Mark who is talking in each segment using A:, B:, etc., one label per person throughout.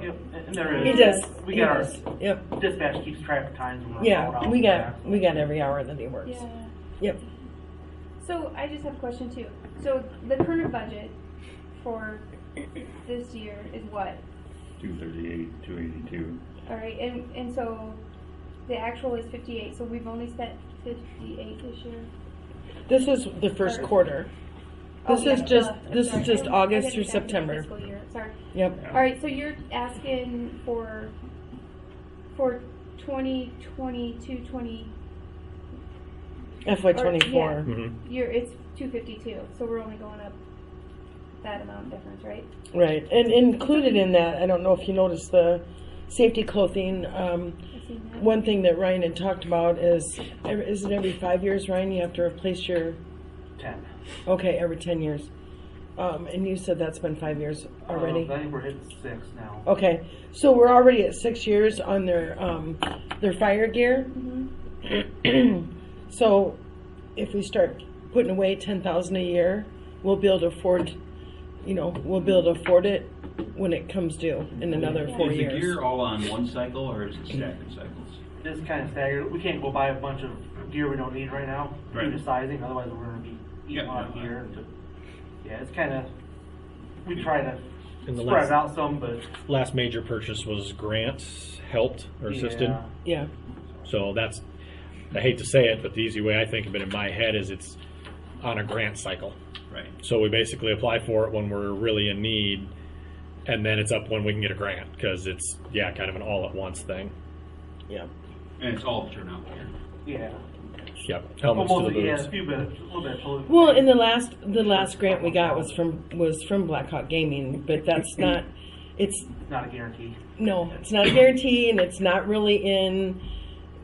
A: Yep, and there is.
B: He does.
A: We
B: he
A: got
B: does.
A: our,
B: Yep.
A: dispatch keeps track of times when we're called
B: Yeah,
A: out.
B: we
A: Yeah.
B: got we got every hour that he works.
C: Yeah.
B: Yep.
C: So I just have a question too. So the current budget for this year is what?
D: Two thirty-eight, two eighty-two.
C: All right, and and so the actual is fifty-eight. So we've only spent fifty-eight this year.
B: This is the first
C: Or-
B: quarter.
C: Oh,
B: This is
C: yeah,
B: just-
C: uh,
B: this is
C: sorry.
B: just
C: I- I
B: August through
C: got it down to the
B: September.
C: fiscal year. Sorry.
B: Yep.
C: All right, so you're asking for for 2022 20
B: FY twenty
C: Or-
B: four.
D: Mm-hmm.
C: year it's 252. So we're only going up that amount difference, right?
B: Right. And included in that, I don't know if you noticed the safety clothing. Um,
C: I've seen that.
B: one thing that Ryan had talked about is, every- is it every five years, Ryan, you have to replace your
A: Ten.
B: okay every ten years, um, and you said that's been five years already. Oh.
A: Uh, I think we're hitting six now.
B: Okay, so we're already at six years on their um, their fire gear.
C: Mhm.
B: so if we start putting away ten thousand a year, we'll be able to afford, you know, we'll be able to afford it when it comes due in another four
E: Is the
B: years.
E: gear all on one cycle or is it stacked in cycles?
A: It's kind of staggered. We can't go buy a bunch of gear we don't need right now
E: Right.
A: due to sizing. Otherwise, we're going to be eating
E: Yeah,
A: on
E: yeah.
A: gear. And yeah, it's kind of. We try to
F: And the
A: spread
F: last-
A: it out some, but
F: Last major purchase was Grant helped or assisted.
A: Yeah.
B: yeah,
F: So that's, I hate to say it, but the easy way I think of it in my head is it's on a grant cycle.
E: Right.
F: So we basically apply for it when we're really in need, and then it's up when we can get a grant because it's yeah, kind of an all at once thing.
B: yeah.
E: And it's all turnout gear.
A: Yeah.
F: Yep, helmets
A: Almost,
F: to the
A: yeah,
F: boots.
A: a few bit, a little bit. of totally-
B: Well, in the last the last grant we got was from was from Black Hawk Gaming, but that's not. It's
A: not a guarantee.
B: No, it's not a guarantee, and it's not really in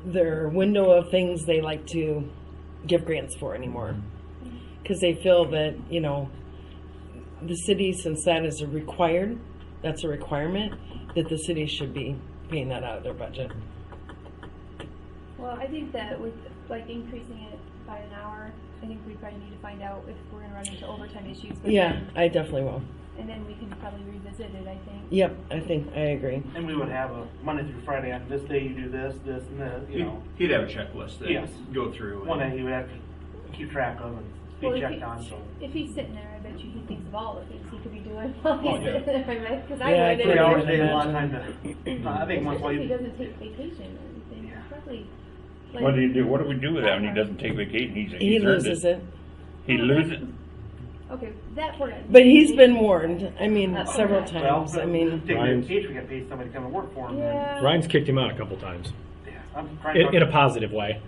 B: their window of things they like to give grants for anymore. Because they feel that, you know, the city, since that is a required, that's a requirement, that the city should be paying that out of their budget.
C: Well, I think that with like increasing it by an hour, I think we probably need to find out if we're gonna run into overtime issues. but
B: Yeah,
C: then-
B: I definitely will.
C: And then we can probably revisit it, I think.
B: Yep, I think, I agree.
A: And we would have a Monday through Friday on this day you do this, this, and this, you know.
E: He'd he'd have a checklist that
A: Yes.
E: he'd go through.
A: One
E: and-
A: that you would have to keep track of and be
C: Well, if
A: checked
C: he-
A: on. So
C: If he's sitting there, I bet you he thinks of all the things he could be doing while
E: Oh,
C: he's
E: yeah.
C: sitting there, right? Because I
B: Yeah, I
C: would.
A: three
B: Yeah.
A: hours a day, a lot of time to. I think once while
C: Especially if he
A: you.
C: doesn't take vacation or anything,
A: Yeah.
C: probably. like-
D: What do you do, what do we do with that when he doesn't take vacation? He's,
B: He
D: he's earned
B: loses
D: it.
B: it,
D: He loses,
C: Okay, that part. I-
B: but he's been warned, I mean, several times, I mean,
A: Taking
F: Ryan's-
A: vacation, we got to pay somebody to come and work for him. then.
C: Yeah.
F: Ryan's kicked him out a couple times
A: Yeah, I'm trying to.
F: in, in a positive way.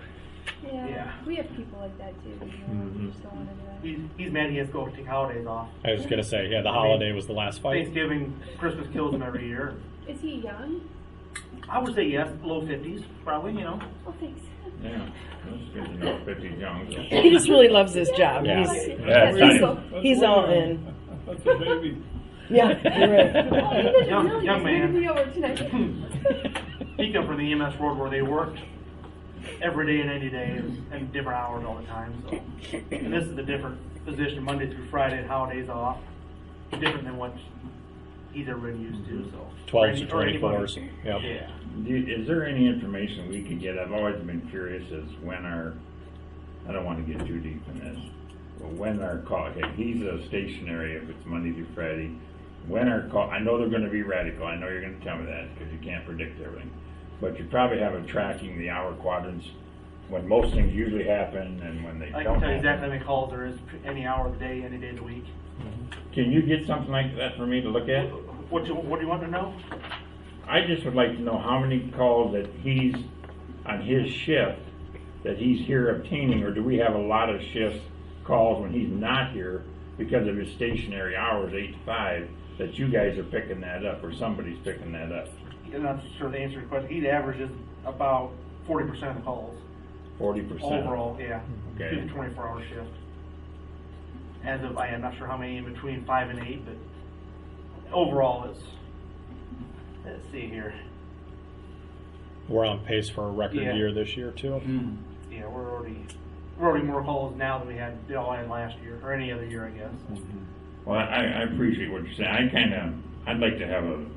C: Yeah,
A: yeah. Mm-hmm.
C: we have people like that too, you know, who just don't wanna do that.
A: He's, he's mad he has to go take holidays off.
F: I was gonna say yeah, the holiday was the last fight.
A: Thanksgiving, Christmas kills him every year.
C: Is he young?
A: I would say yes, low fifties, probably. You know,
C: Oh, thanks.
D: yeah. That's good to know, fifty young.
B: he just really loves his job.
F: Yeah.
B: He's,
D: Yeah,
C: That's
D: it's
C: awesome.
B: he's all in.
G: That's a baby.
B: Yeah, you're right.
C: Oh, he doesn't
A: Young-
C: know
A: young
C: yet.
A: man.
C: Maybe over tonight.
A: he come from the E EMS world where they worked every day and any day and different hours all the time. So, and this is a different position, Monday through Friday, and holidays off, different than what he's ever been used to. So
F: Twelves to
A: Or
F: twenty
A: anybody.
F: fours. Yep.
A: Yeah.
D: Do- Is there any information we could get? I've always been curious as when our, I don't want to get too deep in this, but when our call, okay, he's a stationary if it's Monday through Friday. When our call, I know they're gonna be radical, I know you're gonna tell me that, because you can't predict everything. But you probably have a tracking the hour quadrants, when most things usually happen and when they
A: I can
D: don't
A: tell you exactly how
D: happen.
A: many calls there is any hour of the day, any day of the week.
D: Can you get something like that for me to look at?
A: What you, what do you want to know?
D: I just would like to know how many calls that he's, on his shift, that he's here obtaining, or do we have a lot of shifts, calls when he's not here because of his stationary hours, eight to five, that you guys are picking that up, or somebody's picking that up?
A: I'm not sure the answer to your question. He averages about forty percent of the calls
D: Forty percent?
A: overall. Yeah,
D: Okay.
A: through the twenty-four hour shift. As of I am not sure how many in between five and eight, but overall it's. Let's see here.
F: We're on pace for a record
A: Yeah.
F: year this year too.
A: Yeah, we're already we're already more calls now than we had did all in last year or any other year, I guess.
D: Well, I, I appreciate what you're saying. I kinda, I'd like to have a